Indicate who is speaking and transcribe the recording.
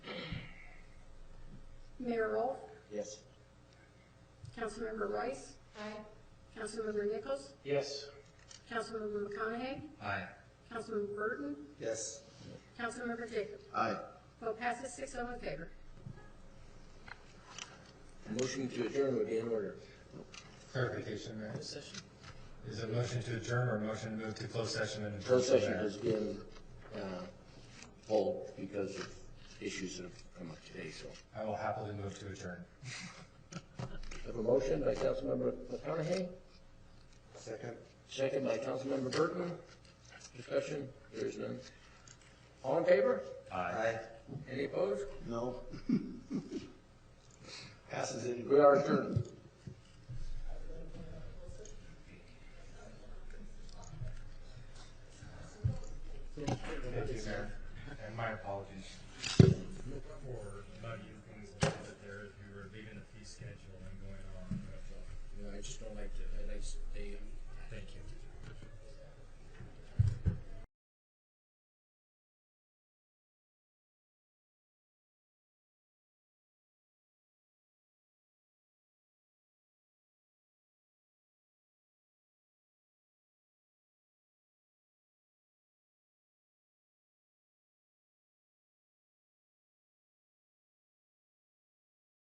Speaker 1: Mayor Rolfe,
Speaker 2: Yes.
Speaker 1: Councilmember Rice,
Speaker 3: Aye.
Speaker 1: Councilmember Nichols,
Speaker 2: Yes.
Speaker 1: Councilmember McConaughey,
Speaker 2: Aye.
Speaker 1: Councilmember Burton,
Speaker 2: Yes.
Speaker 1: Councilmember Jacob.
Speaker 2: Aye.
Speaker 1: Vote passes six oh in favor.
Speaker 2: Motion to adjourn would be in order.
Speaker 4: Clarification, Mayor. Is it motion to adjourn or motion to move to closed session and?
Speaker 2: Closed session has been, uh, pulled because of issues that have come up today, so.
Speaker 4: I will happily move to adjourn.
Speaker 2: Have a motion by Councilmember McConaughey,
Speaker 4: Second.
Speaker 2: second by Councilmember Burton. Discussion, there is none. All in favor?
Speaker 4: Aye.
Speaker 2: Any opposed?
Speaker 5: No. Passes it.
Speaker 2: We are adjourned.
Speaker 4: Thank you, Mayor. And my apologies for muddy things that there, if you were leaving the fee schedule and going on.
Speaker 2: No, I just don't like to, I like, they,